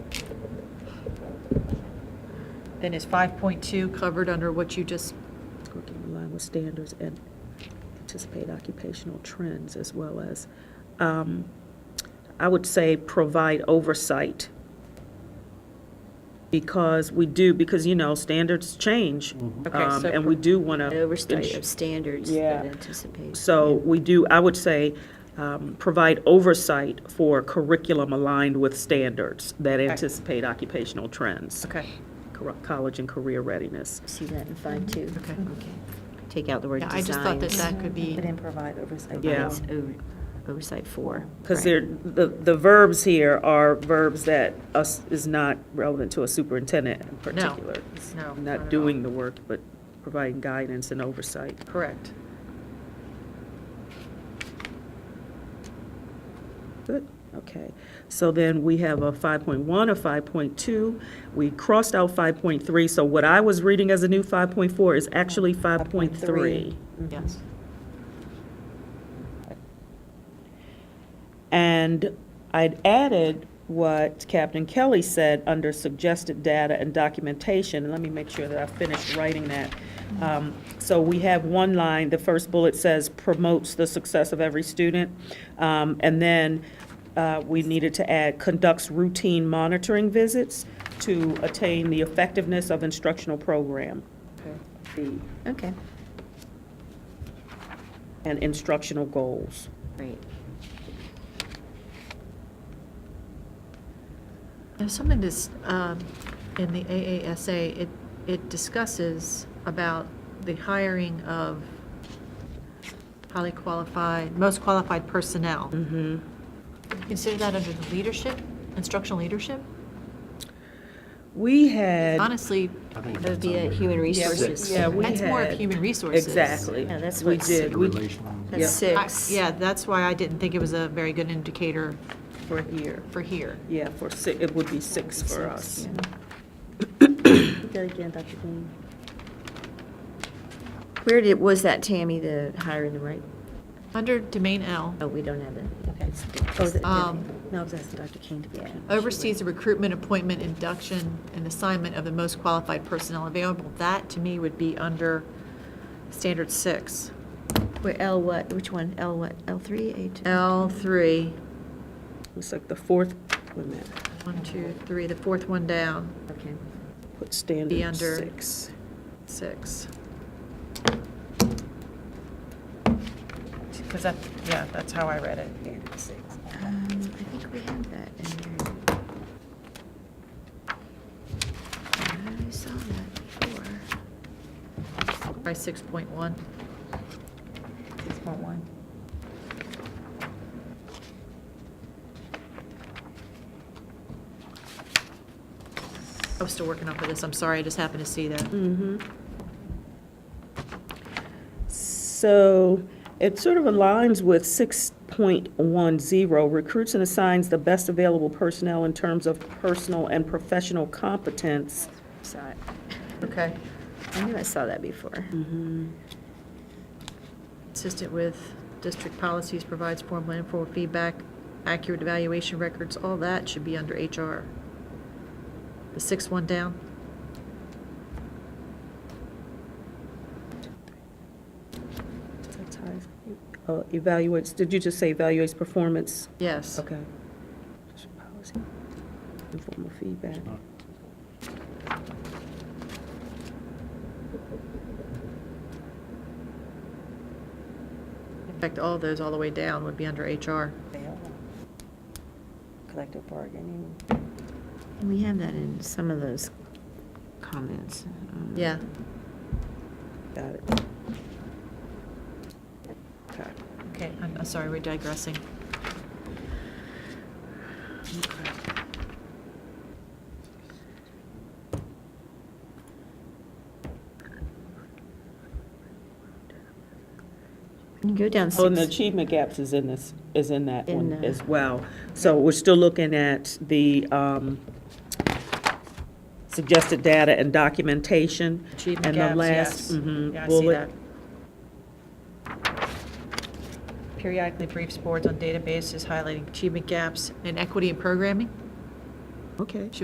Then is 5.2 covered under what you just, working in line with standards and anticipate occupational trends as well as, um, I would say, provide oversight. Because we do, because, you know, standards change. Okay, um, so And we do want An to. Oversight of standards Yeah. that anticipate. So we do, I would say, um, provide oversight for curriculum aligned with standards that anticipate occupational trends. okay, Cor- College and career readiness. See that in five two. okay. Take out the word Yeah, designs. I just thought that that could be, But then provide oversight. Yeah. Provides over- Oversight for. Because right. they're, the, the verbs here are verbs that us, is not relevant to a superintendent in particular. It's no, not at all. Not doing the work, but providing guidance and oversight. correct. Good, okay. So then we have a 5.1, a 5.2. We crossed out 5.3, so what I was reading as a new 5.4 is actually 5.3. Yes. And I'd added what Captain Kelly said under suggested data and documentation. Let me make sure that I finished writing that. Um, So we have one line, the first bullet says promotes the success of every student. Um, And then uh, we needed to add conducts routine monitoring visits to attain the effectiveness of instructional program. Okay, And instructional goals. great. There's something this, um, in the AASA, it, it discusses about the hiring of highly qualified, most qualified personnel. Mm-hmm. Consider that under the leadership, instructional leadership? We had. Honestly, I think That would that's be at under Yeah, human we- resources. Yeah, we had. That's more of human resources. Exactly. Yeah, that's We what's- did. We Relational. That's I- six. Yeah, that's why I didn't think it was a very good indicator For here. for here. Yeah, for six, it would be six for us. That again, Dr. Green. Where did, was that, Tammy, the hiring the right? Under domain L, Oh, we don't have that. Okay. Oh, is it- Um, No, I was asking Dr. King to be. Yeah. oversees the recruitment, appointment, induction, and assignment of the most qualified personnel available. That, to me, would be under standard six. Where L what, which one? L what? L three, A two? L three, It's like the fourth, wait a minute, one, two, three, the fourth one down, Okay. put standard under. six. six. Because that, yeah, that's how I read it. Um, I think we have that in there. I saw that before. By six point one. Six point one. I was still working off of this, I'm sorry, I just happened to see that. Mm-hmm. So it sort of aligns with six point one zero, recruits and assigns the best available personnel in terms of personal and professional competence. Saw it. Okay. I knew I saw that before. Consistent with district policies, provides formal and informal feedback, accurate evaluation records, all that should be under HR. The sixth one down? That's how I- uh, Evaluates, did you just say evaluates performance? Yes. Okay. Policy. Informal feedback. In fact, all those all the way down would be under HR. Collective bargaining. We have that in some of those comments. um, Yeah. Got it. Okay. Okay, I'm, I'm sorry, we're digressing. You go down Oh, and the six. achievement gaps is in this, is in that In one the- as well. So we're still looking at the um, suggested data and documentation. Achievement And the gaps, yes. last, mhm, Yeah, I see bullet. that. Periodically briefs boards on databases highlighting achievement gaps and equity in programming. Okay.